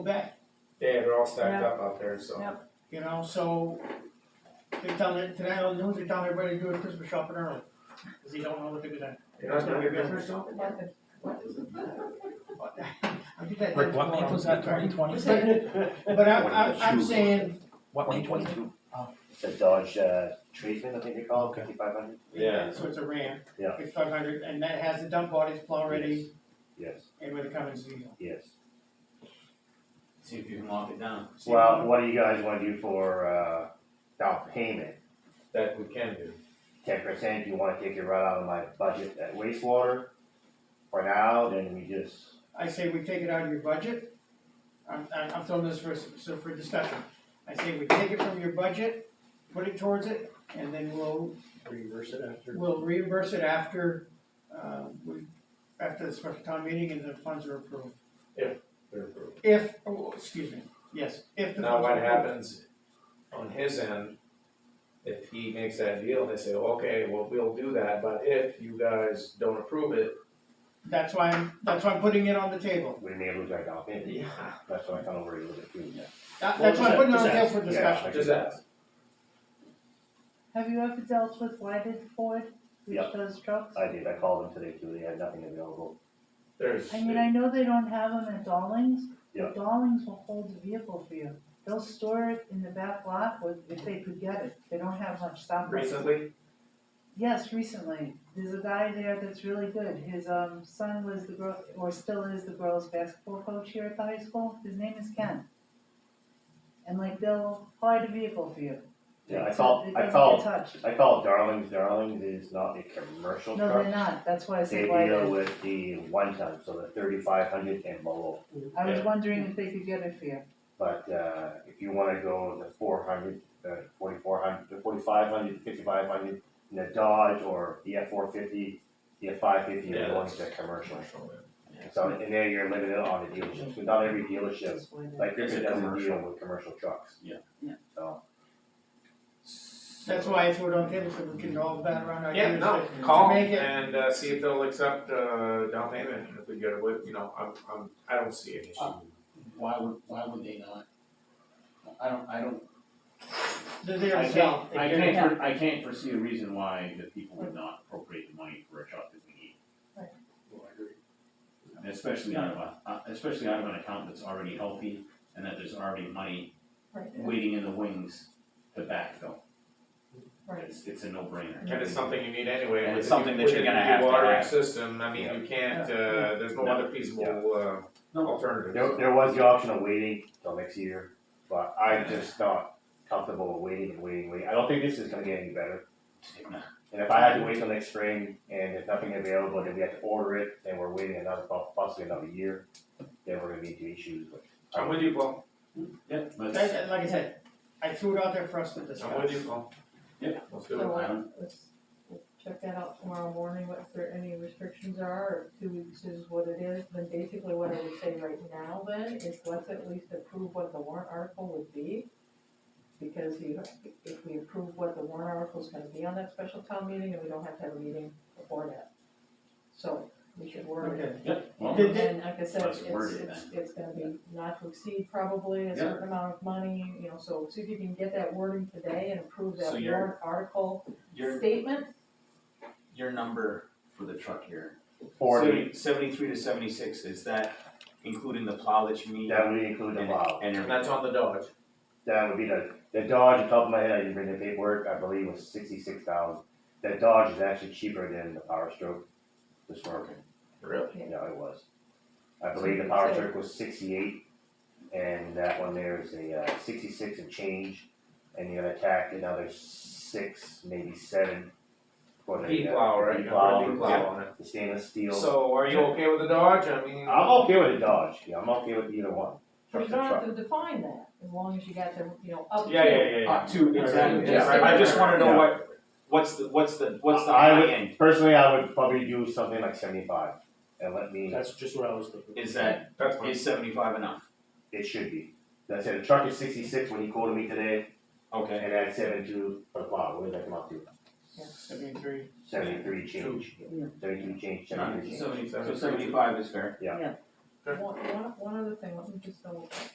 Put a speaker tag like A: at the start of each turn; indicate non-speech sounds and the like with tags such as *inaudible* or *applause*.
A: back,
B: Yeah, they're all stacked up out there, so.
C: Yep.
A: you know, so they tell me, today on the news, they tell everybody to do a Christmas shopping early, cause they don't know what they're gonna.
B: You're not gonna be business
A: *laughs* I think that.
D: Rick, what month was that, twenty twenty?
A: *laughs* But I'm, I'm, I'm saying,
D: What, twenty twenty-two?
A: Oh.
E: It's a Dodge, uh, Tradesman, I think they call it, fifty-five hundred,
B: Yeah.
A: so it's a Ram.
E: Yeah.
A: It's five hundred, and that has the dump bodies plow ready,
E: yes,
A: and with the Cummins diesel.
E: yes.
F: See if you can lock it down.
E: Well, what do you guys wanna do for, uh, down payment?
B: That we can do.
E: Ten percent, you wanna take it right out of my budget at wastewater? For now, then we just,
A: I say we take it out of your budget, I'm, I'm, I'm throwing this for, so for discussion. I say we take it from your budget, put it towards it, and then we'll,
G: reimburse it after.
A: we'll reimburse it after, uh, we, after the special town meeting and the funds are approved.
B: They're approved.
A: If, oh, excuse me, yes, if the.
B: Now, what
A: funds-
B: happens on his end, if he makes that deal, they say, okay, well, we'll do that, but if you guys don't approve it,
A: That's why, I'm that's why I'm putting it on the table.
E: we may lose our down payment,
B: yeah,
E: that's why I kinda worry a little bit too, yeah.
A: That,
G: Well,
A: that's why I'm
G: just-
A: putting it on the
G: just
A: table
G: ask.
A: for discussion.
B: just ask.
C: Have you ever dealt with Wyden Ford, which
E: Yeah.
C: does trucks?
E: I did, I called them today too, they had nothing available,
B: There's,
C: I mean, I know they don't have them at Dallings,
E: Yeah.
C: but Dallings will hold the vehicle for you. They'll store it in the back lot with, if they could get it, they don't have much stock. left.
B: recently,
C: Yes, recently, there's a guy there that's really good, his, um, son was the girl, or still is the girls' basketball coach here at the high school, his name is Ken. And like, they'll hide a vehicle for you.
E: Yeah, I
C: It's-
E: called-
C: it doesn't
E: I
C: get
E: called-
C: touched.
E: I called Darlings, Darlings is not a commercial
C: No, they're
E: truck.
C: not, that's why I
E: They
C: said why
E: deal with the one ton, so the thirty-five hundred and below.
C: I was
B: Yeah.
C: wondering if they could get it for you.
E: But uh if you wanna go the four hundred, uh forty-four hundred, the forty-five hundred, fifty-five hundred, in a Dodge or the F four fifty, the F five fifty, you're
B: Yeah,
E: going
B: that's-
E: to commercial. So and there you're limited on the dealerships, but not every dealership,
C: That's why they-
E: like
F: It's a
E: Griffin doesn't
F: commercial.
E: deal with commercial trucks.
F: Yeah.
C: Yeah.
E: So,
A: That's why I threw it on the table, so we can all bat around our
B: yeah,
A: ideas.
B: no,
A: to-
B: call
A: To make it,
B: and, uh, see if they'll accept, uh, down payment, if we get away, you know, I'm, I'm, I don't see an issue.
F: Why would, why would they not? I don't, I don't,
A: they're there
F: I
A: to sell.
F: can't, I can't, for- I can't foresee a reason why the people would not appropriate the money for a truck that we need.
G: Well, I agree.
F: Especially out of a, uh, especially out of an account that's already healthy and that there's already money
H: Right.
F: waiting in the wings to backfill.
H: Right.
F: It's, it's a no-brainer.
B: And it's something you need anyway.
F: And
B: with
F: it's
B: the-
F: something that
B: with
F: you're
B: the
F: gonna have to
B: watering
F: have.
B: System, I mean, you can't, uh, there's no
F: Yeah.
B: other feasible, uh,
F: No.
B: alternative.
E: there there was the option of waiting till next year, but I'm just not comfortable with waiting and waiting, waiting. I don't think this is gonna get any better. And if I had to wait till next spring and if nothing available, then we have to order it and we're waiting another, possibly another year, then we're gonna be into issues with.
B: I'm with you, Paul,
F: Yeah, let's,
A: That- that- Like I said, I threw it out there for us to discuss.
B: I'm with you, Paul.
F: Yeah.
B: Let's do it.
H: So
F: I
H: uh,
F: don't,
H: let's, we'll check that out tomorrow morning, what if there any restrictions are, or two weeks is what it is, then basically what I would say right now then is let's at least approve what the warrant article would be. Because you, if we approve what the warrant article is gonna be on that special town meeting, and we don't have to have a meeting before that. So we should word it.
A: Okay,
F: Yep, well,
A: Did- did-
H: And like I said,
F: Let's
H: it's,
F: word it
H: it's, it's gonna be not to exceed probably a certain amount of money, you know, so see if you can get that wording today and approve that
F: So you're-
H: warrant article
I: Your,
H: statement.
I: your number for the truck here,
E: Forty,
I: seventy- seventy-three to seventy-six, is that including the plow that you need?
E: that would include the
I: And-
E: plow.
I: And
B: And
I: everything?
B: that's on the Dodge.
E: That would be the, the Dodge, off the top of my head, I didn't bring the paperwork, I believe was sixty-six thousand. The Dodge is actually cheaper than the Power Stroke, the Swerve,
B: Really?
E: yeah, it was. I believe the Power Stroke was sixty-eight and that one there is a uh, sixty-six and change. And you're gonna tack another six, maybe seven for the.
B: Heat
E: uh,
B: plow, right?
E: heat
B: You put a heat
E: plow,
B: plow
E: yeah.
B: on it.
E: the stainless steel.
B: So are you okay with the Dodge? I mean.
E: I'm okay with a Dodge. Yeah, I'm okay with either one.
H: You
E: Truck's a
H: don't have
E: truck.
H: to define that, as long as you got the, you know, up to.
B: Yeah, yeah, yeah, yeah.
I: Uh, two, exactly,
B: Yeah, right,
I: I
B: right,
I: just
B: right,
I: wanna know
E: yeah.
I: what, what's the, what's the, what's the
E: I
I: high
E: would-
I: end?
E: Personally, I would probably do something like seventy-five, and let me.
G: That's just what I was thinking.
I: Is that,
B: That's fine.
I: is seventy-five enough?
E: It should be. That's it. The truck is sixty-six when he quoted me today,
I: Okay,
E: and add seven-two for the plow. What did that come up to?
A: seventy-three.
E: Seventy-three change.
C: Yeah.
E: Seventy-two change. Seventy-three change.
I: seventy, so seventy-five is fair.
H: One, one, one other thing, let me just double check.